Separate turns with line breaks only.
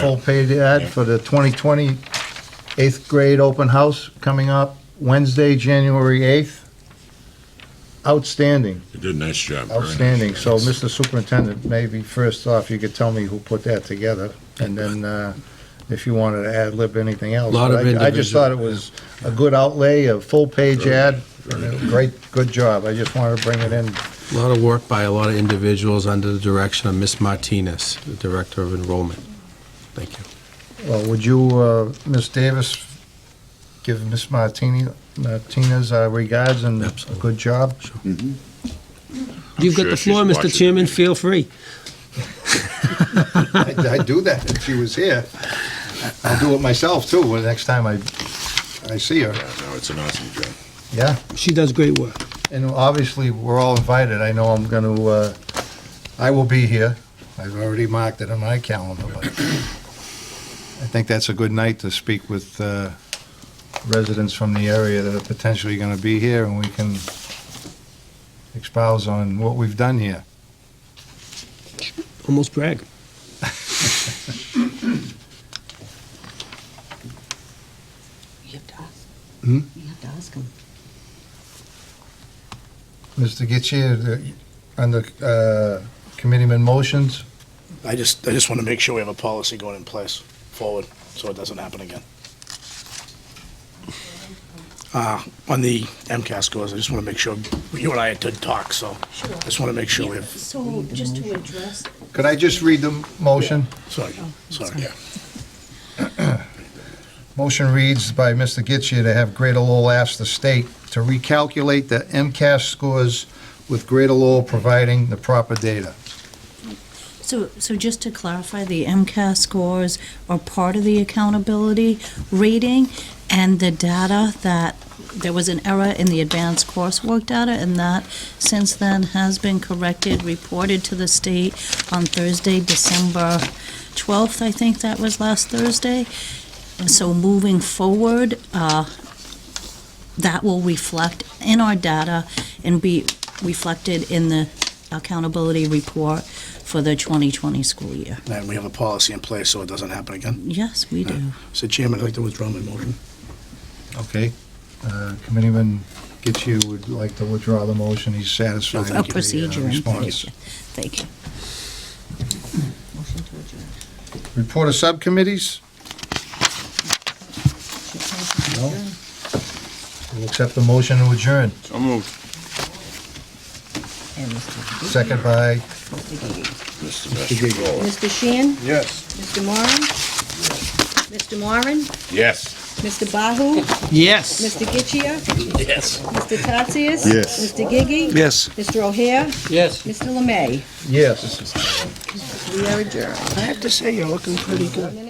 full page ad for the 2020 eighth grade open house coming up Wednesday, January 8th. Outstanding,
You did a nice job. very nice
outstanding.
job.
So, Mr. Superintendent, maybe first off, you could tell me who put that together, and then uh, if you wanted to ad lib anything else.
Lot
But
of
I I just
individual-
thought it was a good outlay, a full page
Very
ad,
good,
and
very
a
good.
great, good job. I just wanted to bring it in.
A lot of work by a lot of individuals under the direction of Miss Martinez, the Director of Enrollment. Thank you.
Well, would you, uh, Ms. Davis, give Ms. Martini, Martinez our regards and a
Absolutely.
good job?
You've got sure the she's floor, Mr. watching. Chairman.
feel free.
I'd I'd do that if she was here. I'll do it myself, too, the next time I, I see her.
Yeah, no, it's an awesome job.
Yeah,
She does great work.
and obviously, we're all invited. I know I'm going to, I will be here. I've already marked it on my calendar, but I think that's a good night to speak with uh, residents from the area that are potentially going to be here, and we can expound on what we've done here.
Almost brag.
You have to ask.
Hmm?
You have to ask him.
Mr. Getchia, on the uh, committeeman motions,
I just, I just want to make sure we have a policy going in place forward, so it doesn't happen again. Uh, on the MCAS scores, I just want to make sure, you and I had to talk, so just want to make sure we have,
So just to address,
could I just read the motion?
sorry,
Oh,
sorry.
Motion reads by Mr. Getchia to have Greater Lowell ask the state to recalculate the MCAS scores with Greater Lowell providing the proper data.
so, so just to clarify, the MCAS scores are part of the accountability rating and the data that, there was an error in the advanced coursework data and that since then has been corrected, reported to the state on Thursday, December 12th, I think that was last Thursday. And so moving forward, uh, that will reflect in our data and be reflected in the accountability report for the 2020 school year.
And we have a policy in place, so it doesn't happen again.
Yes, we do.
So Chairman, I'd like to withdraw my motion.
Okay. Uh, Committeeman Getchia would like to withdraw the motion. He's satisfied with the
A
uh,
procedure in
response.
place. Thank you.
Motion to adjourn.
Report of subcommittees? No. We'll accept the motion to adjourn.
So moved.
And Mr.
Second by
Mr.
Mr.
Gigi.
Mastrobolo.
Mr. Sheehan?
Yes.
Mr. Moran? Mr. Moran?
Yes.
Mr. Bahu?
Yes.
Mr. Getchia? Yes. Mr. Tatsias?
Yes.
Mr. Gigi?
Yes.
Mr. O'Hare?
Yes.
Mr. Lemay?
Yes.
We are adjourned.
I have to say, you're looking pretty good.